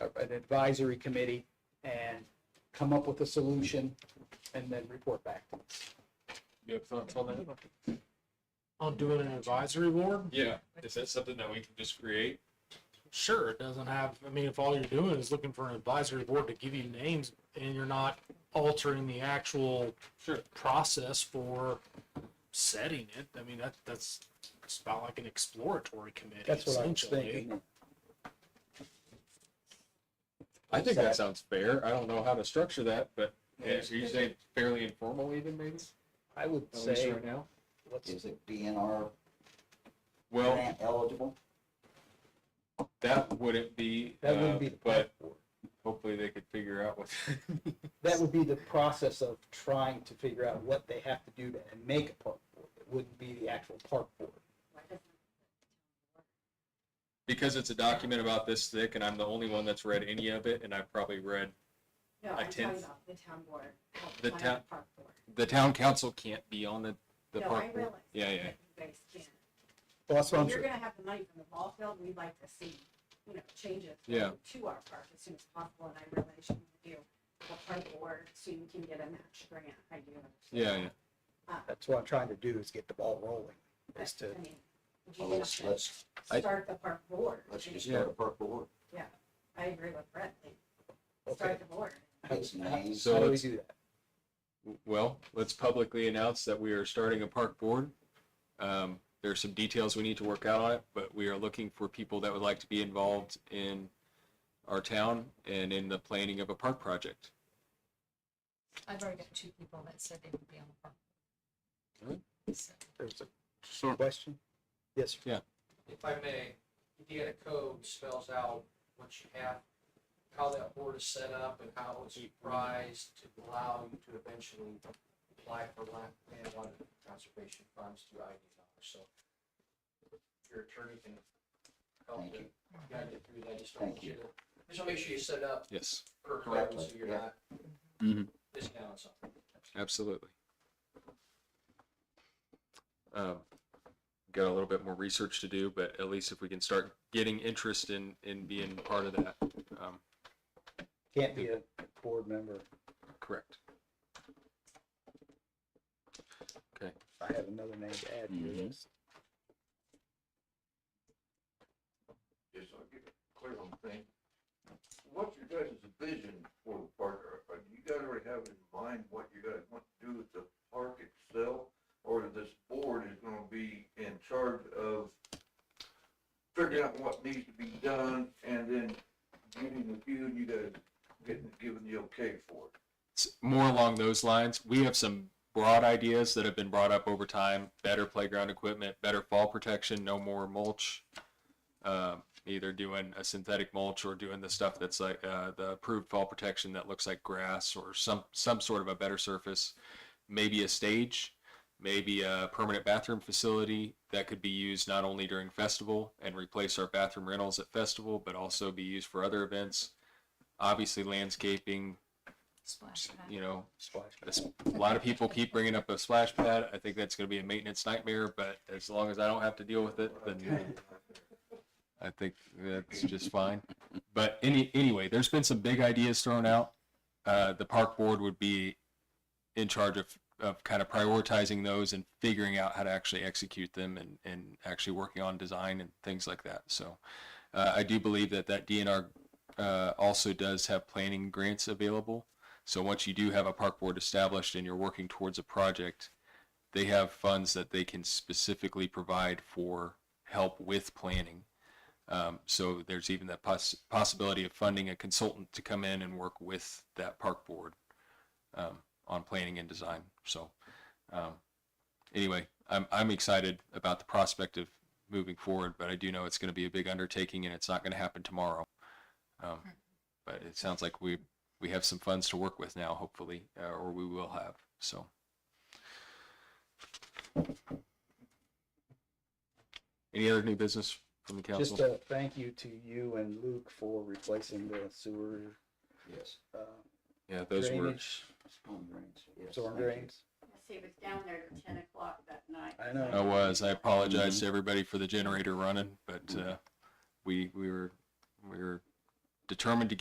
an advisory committee and come up with a solution and then report back. You have thoughts on that? on doing an advisory board? Yeah, is that something that we can just create? Sure, it doesn't have, I mean, if all you're doing is looking for an advisory board to give you names and you're not altering the actual Sure. process for setting it, I mean, that, that's, it's about like an exploratory committee. That's what I was essentially. thinking. I think that sounds fair. I don't know how to structure that, but yeah, so you say fairly informal even maybe? I would At least say, right now? let's, Is it DNR Well, grant eligible? that wouldn't be, That uh, wouldn't be the but hopefully they could figure out what. that would be the process of trying to figure out what they have to do to make a park board. It wouldn't be the actual park board. Because it's a document about this thick and I'm the only one that's read any of it and I've probably read, No, I I'm talking tend- about the town board. not The planning town- Park board. the town council can't be on the, the No, I park. realize. board. Yeah, yeah. that You guys can. Well, that's what I'm If you're saying. gonna have the money from the ball field, we'd like to see, you know, changes. Yeah. To our park as soon as possible, and I realize you can do the park board so you can get a match grant. I do. understand Yeah, that. yeah. Uh, That's what I'm trying to do is get the ball rolling. but, Is to- I mean, you Well, have let's, to let's, I- Start the park board. let's I just mean, Yeah. start a purple board. I agree with Brett. like, Okay. Start the board. It's names. So How do we let's- do that? Well, let's publicly announce that we are starting a park board. Um, there are some details we need to work out on it, but we are looking for people that would like to be involved in our town and in the planning of a park project. I've already got two people that said they would be on the park. Really? So, There's a question? Yes, sir. if I may, Indiana code spells out what you have, how that board is set up and how it's prized to allow you to eventually apply for land, landwater conservation funds through ID dollars, so your attorney can help Thank you you. guide you through that, just don't Thank want you to, just wanna make sure you set up Yes, correctly, Correctly, so you're yeah. not Mhm. discounting something. absolutely. Um, got a little bit more research to do, but at least if we can start getting interest in, in being part of that, um, Can't be a board member. correct. I have another name to add to your Mhm. list. Yes, I'll get it clear on things. What's your guys' vision for the park? Are- are- Do you guys already have in mind what you guys want to do with the park itself? Or this board is gonna be in charge of figuring out what needs to be done and then getting the view and you guys getting, giving the okay for it? s- more along those lines. We have some broad ideas that have been brought up over time: better playground equipment, better fall protection, no more mulch. Um, either doing a synthetic mulch or doing the stuff that's like uh, the approved fall protection that looks like grass or some some sort of a better surface. Maybe a stage, maybe a permanent bathroom facility that could be used not only during festival and replace our bathroom rentals at festival, but also be used for other events. Obviously, landscaping, Splash pad. you know, Splash. that's, a lot of people keep bringing up a splash pad. I think that's going to be a maintenance nightmare, but as long as I don't have to deal with it, then I think that's just fine. But any anyway, there's been some big ideas thrown out. Uh, the park board would be in charge of, of kind of prioritizing those and figuring out how to actually execute them and, and actually working on design and things like that. So uh, I do believe that that DNR uh, also does have planning grants available. So once you do have a park board established and you're working towards a project, they have funds that they can specifically provide for help with planning. Um, so there's even that poss- possibility of funding a consultant to come in and work with that park board um, on planning and design. So um, anyway, I'm, I'm excited about the prospect of moving forward, but I do know it's going to be a big undertaking and it's not going to happen tomorrow. Um, but it sounds like we we have some funds to work with now, hopefully, uh, or we will have. So any other new business from the council? Just uh, a thank you to you and Luke for replacing the sewer, Yes. uh, Yeah, those were, drainage, Storm drains, yes. storm thank you. drains. See, it was down there till ten o'clock that night. I know. I was, I apologize to everybody for the generator running, but, uh, we, we were, we were determined to get.